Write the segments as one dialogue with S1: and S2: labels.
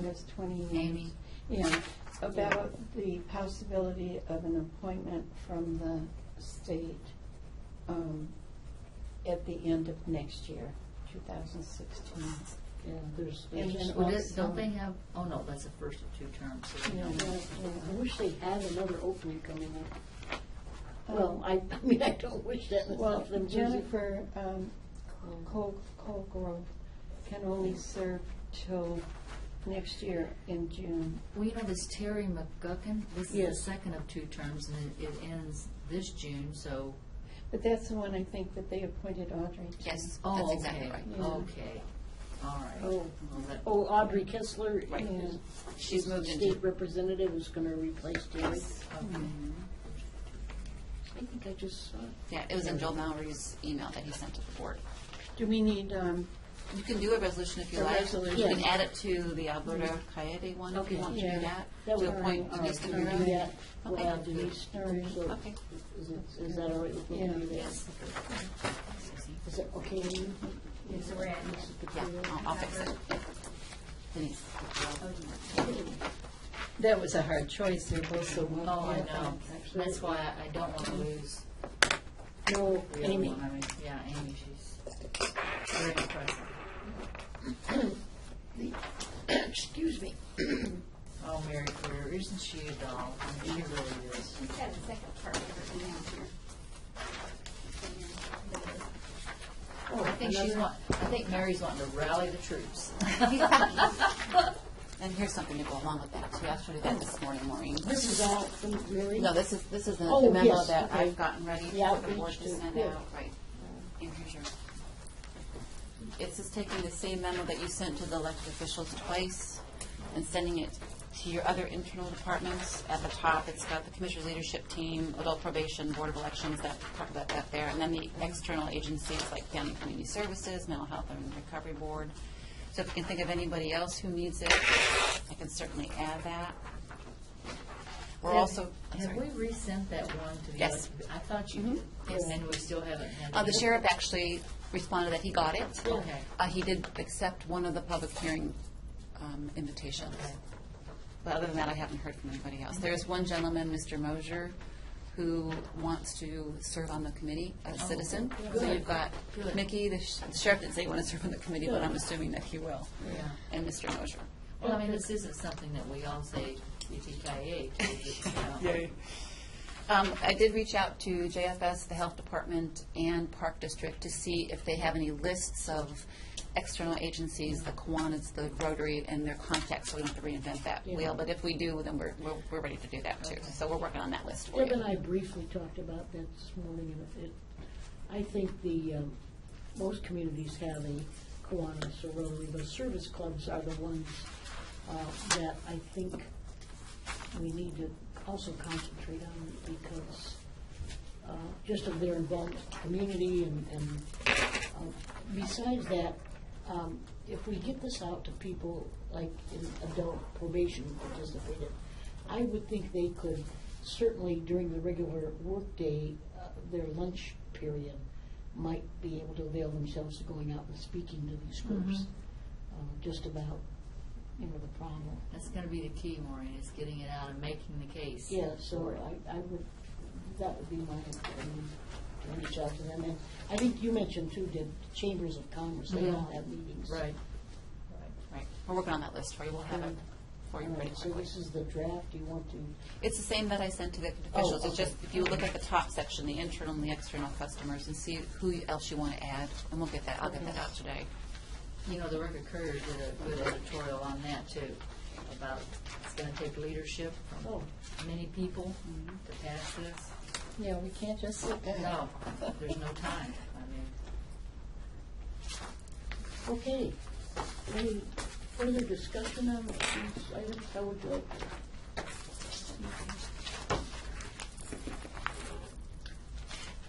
S1: That's 20 years.
S2: Amy.
S1: Yeah, about the possibility of an appointment from the state um, at the end of next year, 2016.
S3: Yeah, there's,
S1: And
S3: there's
S1: then
S3: just
S2: Well, this-
S1: also-
S2: Don't they have, oh no, that's the first of two terms. so they
S1: Yeah.
S2: don't-
S3: uh, I wish they had another opening coming up. Well, I, I mean, I don't wish that in
S1: Um, Well,
S3: South New Jersey.
S1: Jennifer um, Col- Colgrove can only serve till next year in June.
S2: Well, you know, this Terry McGuckin, this is the
S3: Yes.
S2: second of two terms, and it it ends this June, so.
S1: But that's the one I think that they appointed Audrey to.
S4: Yes.
S2: oh,
S4: That's exactly
S2: okay,
S4: right.
S1: Yeah.
S2: Okay, all right.
S3: Oh,
S2: Well, that-
S3: oh, Audrey Kessler
S4: Right.
S3: is
S4: She's moved into,
S3: state representative who's gonna replace Terry.
S2: okay.
S3: I think I just saw. it.
S4: yeah, it was in Joel Mallory's email that he sent to the board.
S1: Do we need, um,
S4: You can do a resolution if you
S1: A
S4: like.
S1: resolution.
S4: You can add it to the Alberta Coyote one if
S2: Okay.
S4: you want to
S1: Yeah.
S4: do that.
S3: That
S4: To
S3: would-
S4: appoint
S3: all right,
S4: Mr.
S3: can we do
S4: Murray.
S3: that? We'll
S4: Okay.
S3: add Denise
S1: All right.
S3: Stokes.
S4: Okay.
S3: Is it, is that all right with you?
S1: Yeah.
S4: Yes.
S3: Is that okay? with you?
S5: Yes, we're in.
S3: Mrs.
S4: Yeah,
S3: Petillo?
S4: I'll- I'll fix it. Yeah. Denise.
S1: That was a hard choice, they're both so well.
S2: Oh, I know,
S3: Actually- um,
S2: that's why I- I don't want to lose
S3: No,
S2: the other
S3: Amy.
S2: one. I mean, Yeah, Amy, she's very impressive.
S3: Excuse me.
S2: Oh, Mary Claire, isn't she a doll? I mean, She really is. Oh, I think she's want, I think Mary's wanting to rally the troops.
S4: And here's something to go along with that too. I showed you that this morning, Maureen.
S3: This is all from Mary?
S4: No, this is, this is
S3: Oh,
S4: the memo
S3: yes,
S4: that
S3: okay.
S4: I've gotten ready
S3: The
S4: for the
S3: outreach
S4: board to
S3: to-
S4: send
S3: yeah.
S4: out, right. And here's your, it's just taking the same memo that you sent to the elected officials twice and sending it to your other internal departments. At the top, it's got the commissioner's leadership team, adult probation, board of elections, that, talk about that there. And then the external agencies like family and community services, mental health and recovery board. So if you can think of anybody else who needs it, I can certainly add that. We're
S2: Have-
S4: also, I'm
S2: Have
S4: sorry.
S2: we resent that one to the?
S4: Yes.
S2: elect- I thought you did,
S4: Yes.
S2: and we still haven't had.
S4: Uh, the
S2: it.
S4: sheriff actually responded that he got it.
S2: Okay.
S4: Uh, he did accept one of the public hearing, um, invitations.
S2: Okay.
S4: But other than that, I haven't heard from anybody else. There's one gentleman, Mr. Mosier, who wants to serve on the committee, a citizen. So
S2: Oh, good.
S4: you've got
S2: Good.
S4: Mickey, the sh- the sheriff didn't say he wanted to serve on the committee, but I'm assuming that he will.
S2: Yeah.
S4: And Mr. Mosier.
S2: Well, I mean, this isn't something that we all say yippee ki
S4: Um, I did reach out to JFS, the Health Department, and Park District to see if they have any lists of external agencies, the Kiwanis, the Rotary, and their contacts, so we don't have to reinvent that wheel. But if we do, then we're, we're, we're ready to do that too. So we're working on that list for
S3: Deb and
S4: you.
S3: I briefly talked about that this morning, and it, I think the, um, most communities have a Kiwanis or Rotary, but service clubs are the ones, uh, that I think we need to also concentrate on because, uh, just of their involvement with the community and, and, uh, besides that, um, if we get this out to people, like in adult probation participated, I would think they could certainly during the regular workday, uh, their lunch period, might be able to avail themselves of going out and speaking to these groups, uh, just about, you know, the problem.
S2: That's gonna be the key, Maureen, is getting it out and making the case.
S3: Yeah, so I, I would, that would be my, um, to reach out to them, and I think you mentioned too, the chambers of commerce, they all have meetings.
S2: Right.
S4: Right. We're working on that list for you. We'll have it for
S3: All
S4: you pretty
S3: right, so
S4: quickly.
S3: this is the draft, you want to,
S4: It's the same that I sent to the officials. It's
S3: Oh, okay.
S4: just, if you look at the top section, the internal and the external customers, and see who else you want to add, and we'll get that, I'll get that out today.
S2: You know, the Record Courier did a good editorial on that too, about it's gonna take leadership
S3: oh,
S2: from many people to pass this.
S1: Yeah, we can't just sit back.
S2: No, there's no time. I mean,
S3: okay. Any further discussion on these items, how would you like? to-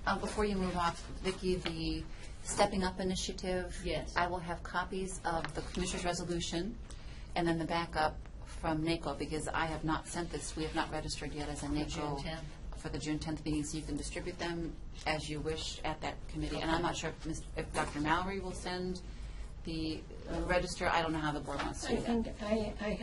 S4: Uh, Before you move off, Vicki, the Stepping Up Initiative.
S2: Yes.
S4: I will have copies of the Commissioner's Resolution and then the backup from NACO because I have not sent this, we have not registered yet as a NACO.
S2: 10th.
S4: For the June 10th meeting, so you can distribute them as you wish at that committee. And I'm not sure if Ms- if Dr. Mallory will send the uh, register, I don't know how the board wants to
S1: I
S4: do that.
S1: think, I, I